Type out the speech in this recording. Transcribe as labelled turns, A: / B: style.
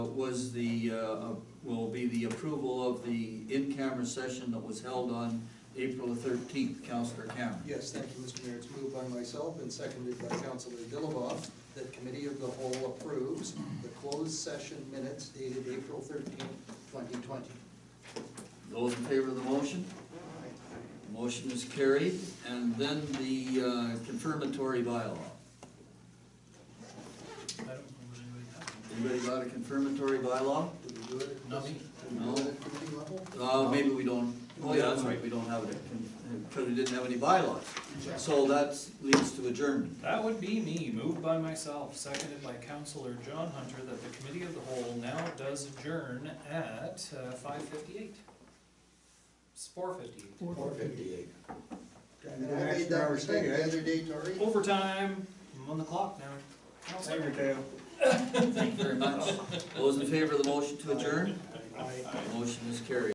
A: was the, uh, will be the approval of the in-camera session that was held on April thirteenth, Counselor Cameron.
B: Yes, thank you, Mr. Mayor. It's moved by myself and seconded by Councilor Dillabaugh that Committee of the Whole approves the closed session minutes dated April thirteenth, twenty twenty.
A: Those in favor of the motion? The Motion is carried, and then the uh, confirmatory bylaw.
C: I don't know what anybody has.
A: Anybody got a confirmatory bylaw?
B: Did we do it? at-
C: Nothing.
B: Did we do it at committee level?
A: Uh, maybe we don't, oh yeah, that's right, we don't have it, because we didn't have any bylaws. So that leads to adjournment.
C: That would be me, moved by myself, seconded by Counselor John Hunter, that the committee of the whole now does adjourn at uh, five fifty-eight. It's four fifty-eight.
B: Four fifty-eight.
D: And
B: And
D: the
B: I made
D: next
B: that
D: hour
B: mistake the
D: thing,
B: other day, Tori.
C: Overtime, I'm on the clock now.
D: eh?
C: Counselor?
D: Flavor Town.
A: Thank you very much. Those in favor of the motion to adjourn?
D: Aye.